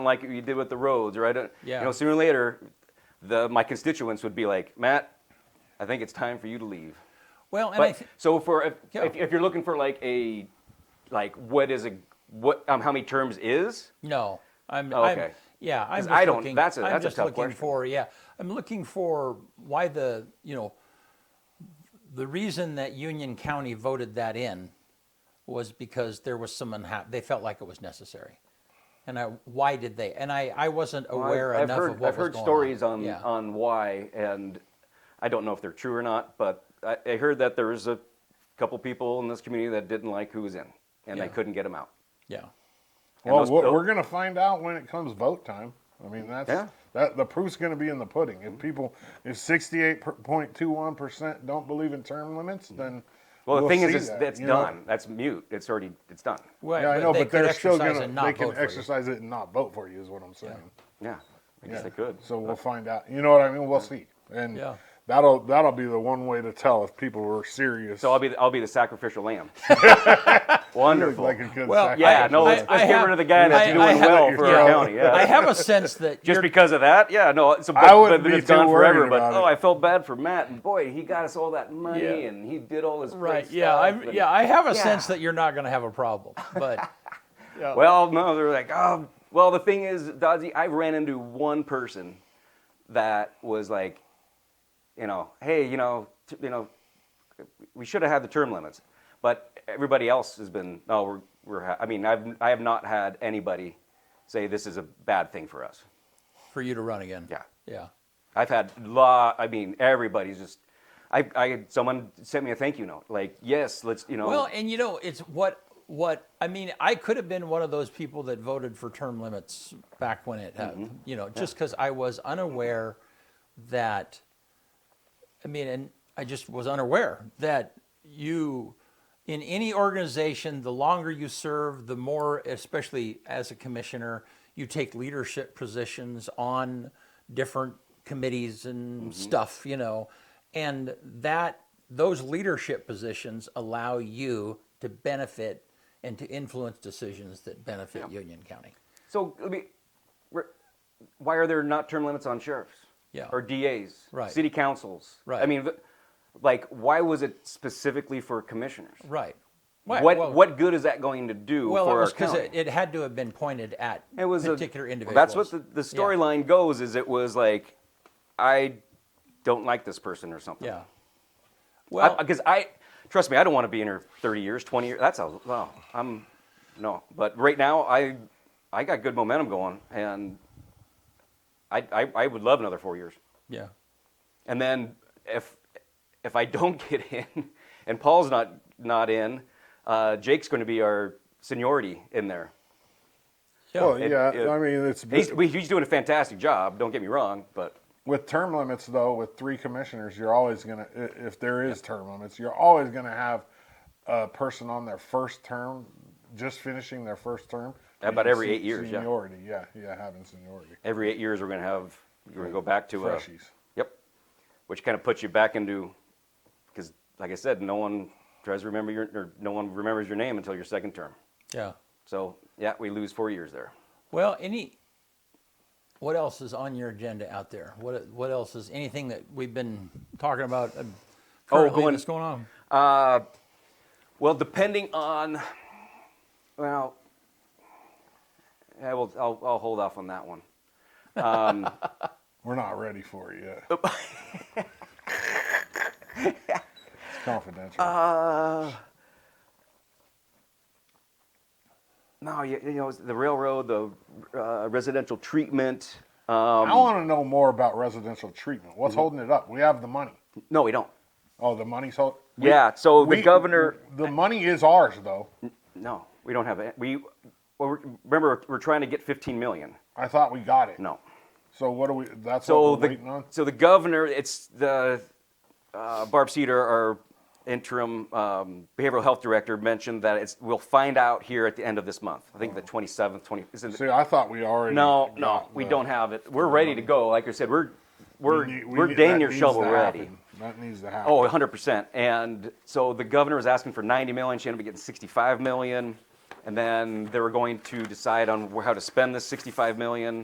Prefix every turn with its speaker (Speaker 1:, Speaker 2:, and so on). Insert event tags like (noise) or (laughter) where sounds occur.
Speaker 1: like you did with the roads, or I don't,
Speaker 2: Yeah.
Speaker 1: you know, sooner or later, the, my constituents would be like, Matt, I think it's time for you to leave.
Speaker 2: Well, and I
Speaker 1: But
Speaker 2: th-
Speaker 1: so for if,
Speaker 2: Yeah.
Speaker 1: if, if you're looking for like a, like what is a what um, how many terms is?
Speaker 2: no, I'm
Speaker 1: Oh,
Speaker 2: I'm-
Speaker 1: okay.
Speaker 2: yeah, I'm
Speaker 1: 'Cause
Speaker 2: just
Speaker 1: I don't-
Speaker 2: looking.
Speaker 1: that's a-
Speaker 2: I'm
Speaker 1: that's a
Speaker 2: just
Speaker 1: tough
Speaker 2: looking
Speaker 1: question.
Speaker 2: for yeah. I'm looking for why the you know the reason that Union County voted that in was because there was some unha- they felt like it was necessary, and I why did they? And I I wasn't aware
Speaker 1: I've,
Speaker 2: enough
Speaker 1: heard
Speaker 2: of what
Speaker 1: I've
Speaker 2: was
Speaker 1: heard
Speaker 2: going
Speaker 1: stories on
Speaker 2: Yeah.
Speaker 1: on why, and I don't know if they're true or not, but I, I heard that there was a couple people in this community that didn't like who was in, and
Speaker 2: Yeah.
Speaker 1: they couldn't get him out.
Speaker 2: yeah.
Speaker 1: And
Speaker 3: Well,
Speaker 1: those-
Speaker 3: we're,
Speaker 1: those-
Speaker 3: we're going to find out when it comes vote time. I mean, that's
Speaker 1: Yeah. Mm-hmm.
Speaker 3: that the proof's going to be in the pudding. If people, if sixty-eight point two one percent don't believe in term limits, then
Speaker 1: Mm-hmm. Well, the thing is,
Speaker 3: see
Speaker 1: is
Speaker 3: that,
Speaker 1: that's
Speaker 3: you know?
Speaker 1: done. That's mute. It's already it's done.
Speaker 2: Well,
Speaker 3: Yeah, I know,
Speaker 2: they
Speaker 3: but
Speaker 2: could
Speaker 3: they're still
Speaker 2: exercise
Speaker 3: going to
Speaker 2: and not
Speaker 3: they can
Speaker 2: vote for you.
Speaker 3: exercise it and not vote for you is what I'm saying.
Speaker 1: Yeah, I guess
Speaker 3: Yeah.
Speaker 1: they could.
Speaker 3: So we'll find out. You know what I mean? We'll see, and
Speaker 2: Yeah.
Speaker 3: that'll that'll be the one way to tell if people were serious.
Speaker 1: So I'll be the, I'll be the sacrificial
Speaker 3: (laughs)
Speaker 1: lamb. Wonderful.
Speaker 3: Like a good
Speaker 2: Well,
Speaker 1: yeah,
Speaker 2: I-
Speaker 1: no,
Speaker 2: I-
Speaker 1: let's, let's
Speaker 2: I
Speaker 1: get
Speaker 2: have-
Speaker 1: rid of the guy that's
Speaker 2: I-
Speaker 1: doing
Speaker 2: I have-
Speaker 1: well for our
Speaker 3: yeah.
Speaker 1: county. Yeah.
Speaker 2: I have a sense
Speaker 1: (laughs)
Speaker 2: that
Speaker 1: just
Speaker 2: you're-
Speaker 1: because of that, yeah, no. So, but,
Speaker 3: I wouldn't
Speaker 1: but then
Speaker 3: be
Speaker 1: it's gone
Speaker 3: too
Speaker 1: forever.
Speaker 3: worried
Speaker 1: But
Speaker 3: about
Speaker 1: oh,
Speaker 3: it.
Speaker 1: I felt bad for Matt, and boy, he got us all that money,
Speaker 2: Yeah.
Speaker 1: and he did all this great
Speaker 2: right. Yeah,
Speaker 1: stuff,
Speaker 2: I
Speaker 1: and-
Speaker 2: yeah I have a
Speaker 1: uh, Yeah.
Speaker 2: sense that you're not going to have a problem,
Speaker 1: (laughs)
Speaker 2: but yeah.
Speaker 1: Well, no, they're like, oh, well, the thing is, Dodgy, I ran into one person that was like, you know, hey, you know, t- you know, we should have had the term limits, but everybody else has been, oh, we're, we're ha-. I mean, I've, I have not had anybody say this is a bad thing for us.
Speaker 2: for you to run again.
Speaker 1: Yeah.
Speaker 2: Yeah.
Speaker 1: I've had law. I mean, everybody's just. I, I had someone sent me a thank you note. Like, yes, let's. You know.
Speaker 2: Well, and you know, it's what what I mean. I could have been one of those people that voted for term limits back when it, happened.
Speaker 1: Mm-hmm.
Speaker 2: you know, just because I was unaware that. I mean, and I just was unaware that you, in any organization, the longer you serve, the more, especially as a commissioner, you take leadership positions on different committees and
Speaker 1: Mm-hmm.
Speaker 2: stuff, you know, and that those leadership positions allow you to benefit and to influence decisions that benefit Union County.
Speaker 1: so I mean, we're- why are there not term limits on sheriffs?
Speaker 2: Yeah.
Speaker 1: Or DAs.
Speaker 2: Right.
Speaker 1: City councils.
Speaker 2: Right.
Speaker 1: I mean, th- like, why was it specifically for commissioners?
Speaker 2: Right.
Speaker 1: What What good is that going to do
Speaker 2: Well,
Speaker 1: for
Speaker 2: it was
Speaker 1: our
Speaker 2: because
Speaker 1: county?
Speaker 2: it, it had to have been pointed at
Speaker 1: It was a-
Speaker 2: particular
Speaker 1: well,
Speaker 2: individuals.
Speaker 1: That's what the, the
Speaker 2: Yeah.
Speaker 1: storyline goes. Is it was like, I don't like this person or something.
Speaker 2: Yeah. Well,
Speaker 1: Well, because I, trust me, I don't want to be in here 30 years, 20 years. That's a wow. I'm no, but right now I I got good momentum going, and I I, I would love another four years.
Speaker 2: yeah.
Speaker 1: And then if if I (laughs) don't get in, and Paul's not not in, uh, Jake's going to be our seniority in there.
Speaker 2: Yeah.
Speaker 3: well,
Speaker 1: it-
Speaker 3: yeah.
Speaker 1: it-
Speaker 3: I mean, it's
Speaker 1: He's, he's doing a fantastic job. Don't get me wrong, but
Speaker 3: with term limits though with three commissioners you're always going to if there is term limits you're always going to have a person on their first term just finishing their first term
Speaker 1: About
Speaker 3: being
Speaker 1: every
Speaker 3: sen-
Speaker 1: eight years, yeah.
Speaker 3: seniority yeah yeah having seniority
Speaker 1: every eight years we're going to have we're going to go back to uh, a,
Speaker 3: freshies
Speaker 1: Yep. Which kind of puts you back into, because like I said, no one tries to remember your, or no one remembers your name until your second term.
Speaker 2: yeah.
Speaker 1: So yeah, we lose four years there.
Speaker 2: Well, any. What else is on your agenda out there? What What else is anything that we've been talking about? um,
Speaker 1: Oh,
Speaker 2: currently
Speaker 1: going-
Speaker 2: that's going on.
Speaker 1: Well, depending on, well, I will, I'll, I'll hold off on that one.
Speaker 3: we're not ready for it yet
Speaker 1: Oh. (laughs)
Speaker 3: it's confidential
Speaker 1: Um, No, you, you know, it's the railroad, the uh, residential treatment.
Speaker 3: i want to know more about residential treatment
Speaker 1: Mm-hmm.
Speaker 3: what's holding it up we have the money
Speaker 1: No, we don't.
Speaker 3: oh the money's hold- we-
Speaker 1: yeah. So the
Speaker 3: we-
Speaker 1: governor, Mm.
Speaker 3: the money is ours though
Speaker 1: no, we don't have it. We, well, we're- remember, we're trying to get 15 million.
Speaker 3: i thought we got it
Speaker 1: No.
Speaker 3: so what do we that's
Speaker 1: So
Speaker 3: what we're
Speaker 1: the
Speaker 3: waiting on
Speaker 1: so the governor, it's the uh, Barb Cedar, our interim um, behavioral health director, mentioned that it's we'll find out here at the end of this month. I think the 27th, 20. Is it,
Speaker 3: See, I thought Oh. we already.
Speaker 1: no, no,
Speaker 3: got
Speaker 1: we
Speaker 3: the-
Speaker 1: don't have it. We're ready to go. Like I said, we're we're
Speaker 3: need-
Speaker 1: we are
Speaker 3: need-
Speaker 1: dang
Speaker 3: that
Speaker 1: near
Speaker 3: needs
Speaker 1: shovel
Speaker 3: to
Speaker 1: ready.
Speaker 3: happen. That needs to happen.
Speaker 1: Oh, 100 percent. And so the governor was asking for 90 million. She ended up getting 65 million. and then they were going to decide on wh- how to spend this 65 million